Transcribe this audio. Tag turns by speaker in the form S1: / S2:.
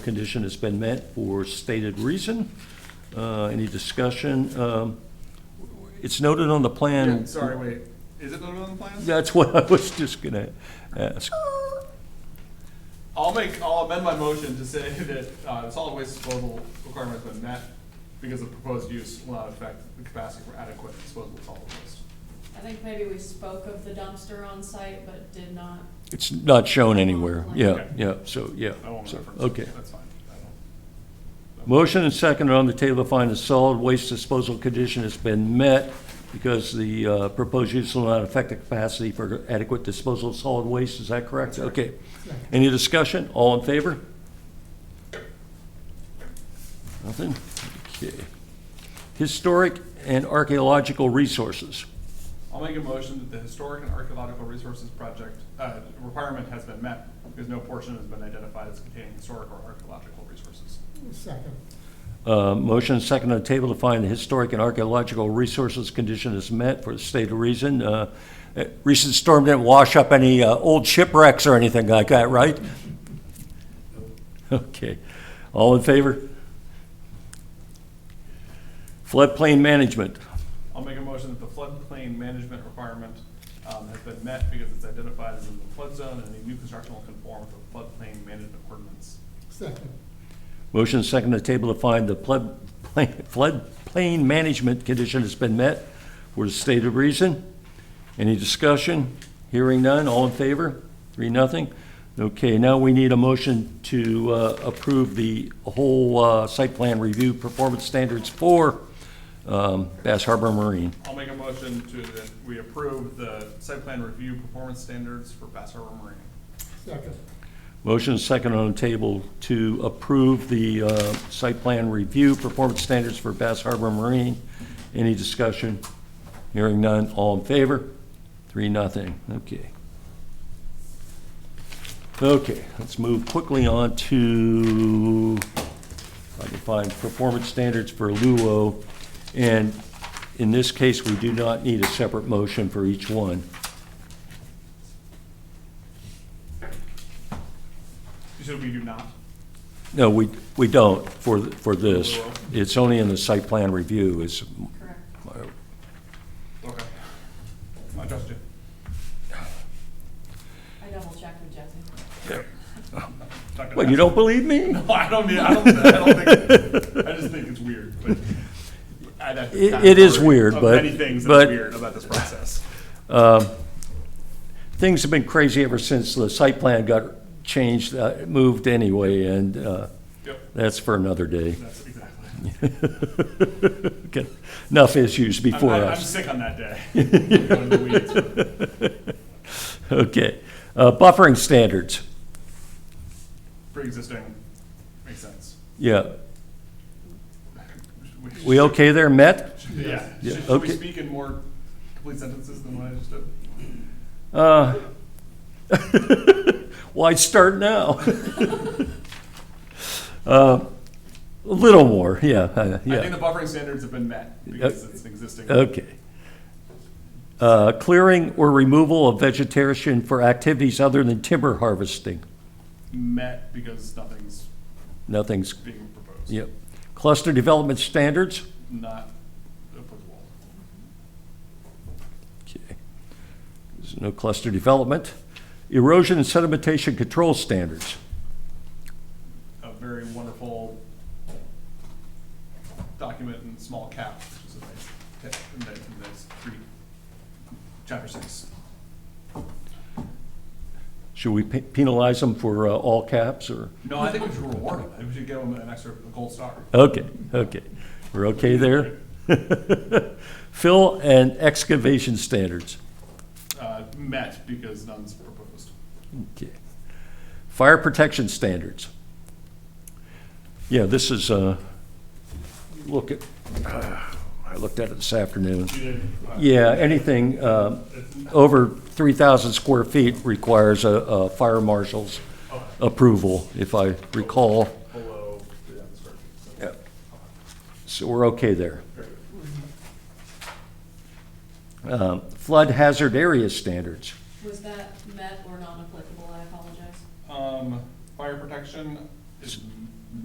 S1: condition has been met for stated reason. Uh, Any discussion? Um, It's noted on the
S2: Yeah,
S1: plan.
S2: sorry, wait, is it noted on the plans?
S1: That's what I was just gonna ask.
S2: I'll make, I'll amend my motion to say that, uh, the solid waste disposal requirement has been met because the proposed use will not affect the capacity for adequate disposal of solid waste.
S3: I think maybe we spoke of the dumpster on site, but did not.
S1: It's not shown anywhere. Yeah,
S2: Okay.
S1: yeah, so, yeah.
S2: I won't
S1: so,
S2: reference. it.
S1: Okay.
S2: That's fine. I don't-
S1: Motion and second on the table to find a solid waste disposal condition has been met because the uh, proposed use will not affect the capacity for adequate disposal of solid waste. Is that correct? Okay. Any discussion? All in favor? Nothing? Okay. Historic and archaeological resources.
S2: I'll make a motion that the historic and archaeological resources project, uh, requirement has been met because no portion has been identified as containing historic or archaeological resources.
S4: Second,
S1: Uh, Motion and second on the table to find the historic and archaeological resources condition is met for the state of reason. Uh, eh, Recent storm didn't wash up any uh, old shipwrecks or anything like that, right? Okay. All in favor? Floodplain management.
S2: I'll make a motion that the floodplain management requirement um, has been met because it's identified as in the flood zone and any new construction will conform with the floodplain management ordinance.
S4: second,
S1: Motion and second on the table to find the flood- floodplain management condition has been met for the state of reason. Any discussion? Hearing none, all in favor? Three, nothing. Okay, now we need a motion to uh, approve the whole uh, site plan review performance standards for um, Bass Harbor Marine.
S2: I'll make a motion to, that we approve the site plan review performance standards for Bass Harbor Marine.
S4: second,
S1: Motion and second on the table to approve the uh, site plan review performance standards for Bass Harbor Marine. Any discussion? Hearing none, all in favor? Three, nothing, okay. Okay, let's move quickly on to, if I can find performance standards for Luo. And in this case, we do not need a separate motion for each one.
S2: So we do not.
S1: No, we, we don't for, th- for this. It's only in the site plan review is,
S3: Correct.
S2: Okay. I trust you.
S3: I double checked with Jesse.
S2: Not gonna
S1: what, you
S2: ask.
S1: don't believe me?
S2: I don't, mean- I don't, I don't think, I just think it's weird, but. I'd have to
S1: It-
S2: kind
S1: it
S2: of
S1: is
S2: worry
S1: weird,
S2: of
S1: but-
S2: Many things
S1: but-
S2: that's weird about this process.
S1: Things have been crazy ever since the site plan got changed, uh, moved anyway, and uh,
S2: Yep,
S1: that's for another day.
S2: that's exactly.
S1: Okay, Enough issues
S2: I'm,
S1: before
S2: I'm- I'm
S1: us.
S2: sick on that day. Going to the weeds.
S1: Okay, Uh, buffering standards,
S2: Pre-existing, makes sense.
S1: yeah.
S2: We-
S1: We okay there, met?
S2: Yeah,
S1: Yeah,
S2: should, should we
S1: okay.
S2: speak in more complete sentences than what I just did?
S1: Uh, Why start now? Uh, A little more, yeah, uh,
S2: I think
S1: yeah,
S2: the buffering standards have been met because it's an existing.
S1: okay. Uh, Clearing or removal of vegetation for activities other than timber harvesting,
S2: Met because nothing's
S1: nothing's,
S2: being proposed.
S1: yep. Cluster development standards,
S2: Not applicable.
S1: okay. There's no cluster development. Erosion and sedimentation control standards,
S2: A very wonderful document in small cap, which is a nice, tip in the, in this three, chapter six.
S1: should we pe- penalize them for uh, all caps, or?
S2: No, I think we should reward them. We should give them an extra gold star.
S1: Okay, okay. We're okay there? Fill and excavation standards.
S2: Uh, met because none's proposed.
S1: Okay. Fire protection standards. Yeah, this is, uh, look at, I looked at it this afternoon.
S2: You did, uh,
S1: Yeah, anything um, over 3,000 square feet requires a- a fire marshal's approval, if I recall.
S2: Below the atmosphere. So,
S1: Yeah. So we're okay there.
S2: very good.
S1: Um, Flood hazard area standards.
S3: Was that met or non-applicable? I apologize.
S2: Um, fire protection is